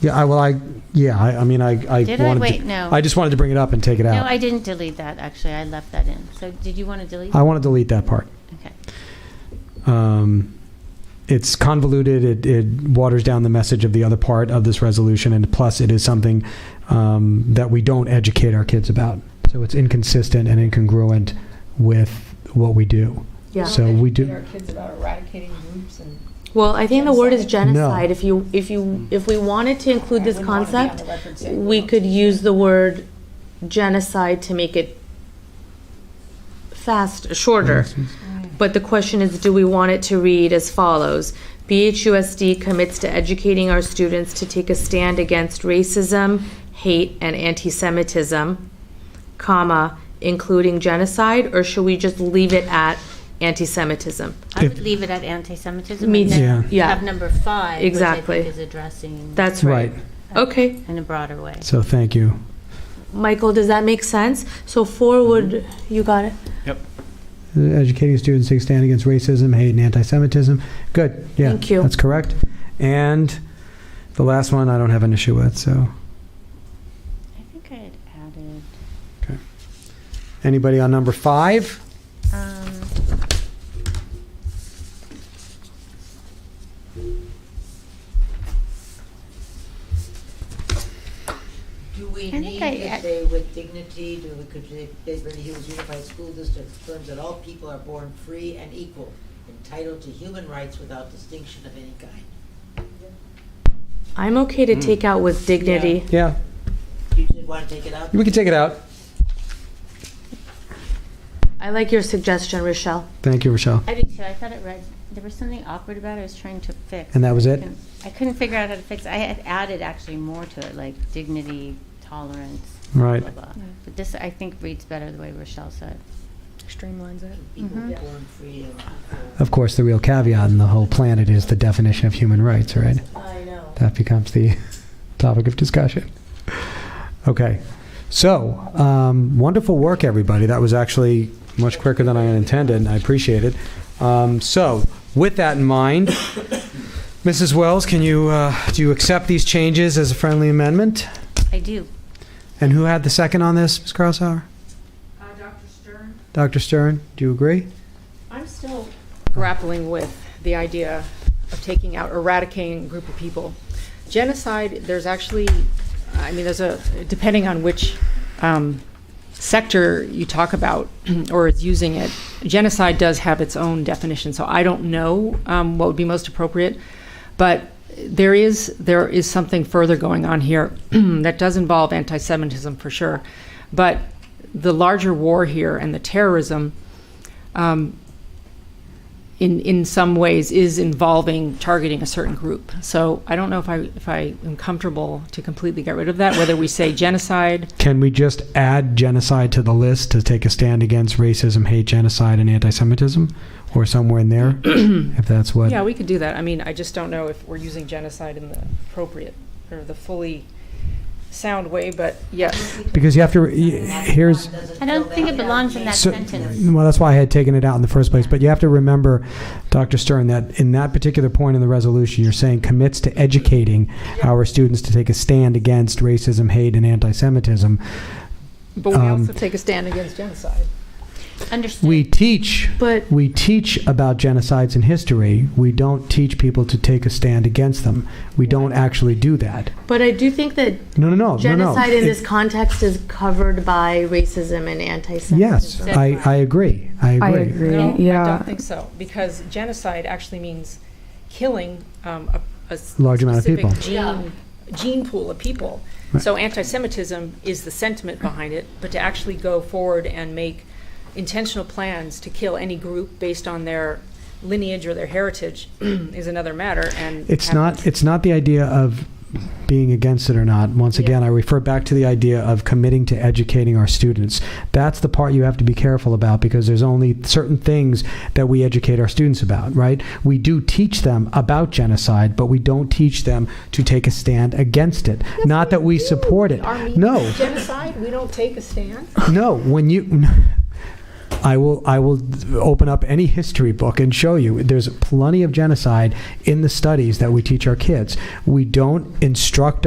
Yeah, I, well, I, yeah, I, I mean, I, I Did I? wanted. to- Wait, no. I just wanted to bring it up and take it No, out. I didn't delete that, actually. I left that in. So did you want to delete? I want to delete that part. Okay. Um, it's convoluted. It, it waters down the message of the other part of this resolution, and plus, it is something um, that we don't educate our kids about. So it's inconsistent and incongruent with what we do. Yeah. So we do. Our kids about eradicating groups and. Well, I think the word is Genocide. No. genocide. If you, if you, if we wanted to include this I wouldn't wanna be on the concept, record saying we don't could teach use it. the word genocide to make it fast, shorter. But the question is, do we want it to read as follows? BHUSD commits to educating our students to take a stand against racism, hate, and anti-Semitism, comma, including genocide, or should we just leave it at anti-Semitism? I If- would leave it at anti-Semitism. Me and too. then Yeah. Have number five, which I Exactly. think is addressing That's Right. right. Okay, in a broader way. So thank you. Michael, does that make sense? So four would, Mm-hmm. you got it? Educating students to take stand against racism, hate, and anti-Semitism. Good. Yeah, Thank you. That's correct. And the last one, I don't have an issue with. So I think I had added, anybody on number five? um, Do we I think need I- to I- say with dignity, do we could say Bisbee Hills Unified School District affirms that all people are born free and equal, entitled to human rights without distinction of any kind? I'm okay Mm. to take out with dignity. Yeah, Do you want to take it out? we can take it out. I like your suggestion, Rochelle. Thank you, Rochelle. I did too. I thought it read, there was something awkward about it I was trying to fix. And that was it? I couldn't figure out how to fix, it. I had added actually more to it, like dignity, tolerance, blah, Right. blah, blah. But this, I think, reads better the way Rochelle said. Streamlines it. People Mhm. born free and equal. Of course, the real caveat in the whole planet is the definition of human rights, right? I know. That becomes the topic of discussion. Okay. So, um, wonderful work, everybody. That was actually much quicker than I had intended, and I appreciate it. Um, so, with that in mind, Mrs. Wells, can you uh, do you accept these changes as a friendly amendment? I do. And who had the second on this, Ms. Crosshauer? Dr. Stern, do you agree? I'm still grappling with the idea of taking out, eradicating a group of people. Genocide, there's actually, I mean, there's a, depending on which um, sector you talk about or is using it, genocide does have its own definition, so I don't know um, what would be most appropriate. But there is, there is something further going on here that does involve anti-Semitism for sure. But the larger war here and the terrorism, um, in in some ways is involving targeting a certain group. So I don't know if I if I am comfortable to completely get rid of that. Whether we say genocide, Can we just add genocide to the list to take a stand against racism, hate, genocide, and anti-Semitism, or somewhere in there, if that's what? yeah, we could do that. I mean, I just don't know if we're using genocide in the appropriate or the fully sound way. But yes, Uh, Because you have to. y- Here's. I don't think it belongs in that So- sentence. Well, that's why I had taken it out in the first place. But you have to remember, Dr. Stern, that in that particular point in the resolution, you're saying commits to educating our students to take a stand against racism, hate, and anti-Semitism. but we Um, also take a stand against genocide. Understood. We teach But we teach about genocides in history. We don't teach people to take a stand against them. We don't actually do that. but I do think that No, no, Oh, no, no, no. genocide in It- this context is covered by racism and anti-Semitism. yes, I, I agree. I agree. I agree. No, I yeah. don't think so because genocide actually means killing um, a, a s- Large amount of specific people. Gene, gene pool of people. So anti-Semitism is the sentiment behind it, but to actually go forward and make intentional plans to kill any group based on their lineage or their heritage is another matter. And It's have- not. It's not the idea of being against it or not. Once Yeah. again, I refer back to the idea of committing to educating our students. That's the part you have to be careful about because there's only certain things that we educate our students about, right? We do teach them about genocide, but we don't teach them to take a stand against it. not that we support it. no, genocide. We don't take a stand. no, when you, I will, I will open up any history book and show you. There's plenty of genocide in the studies that we teach our kids. We don't instruct our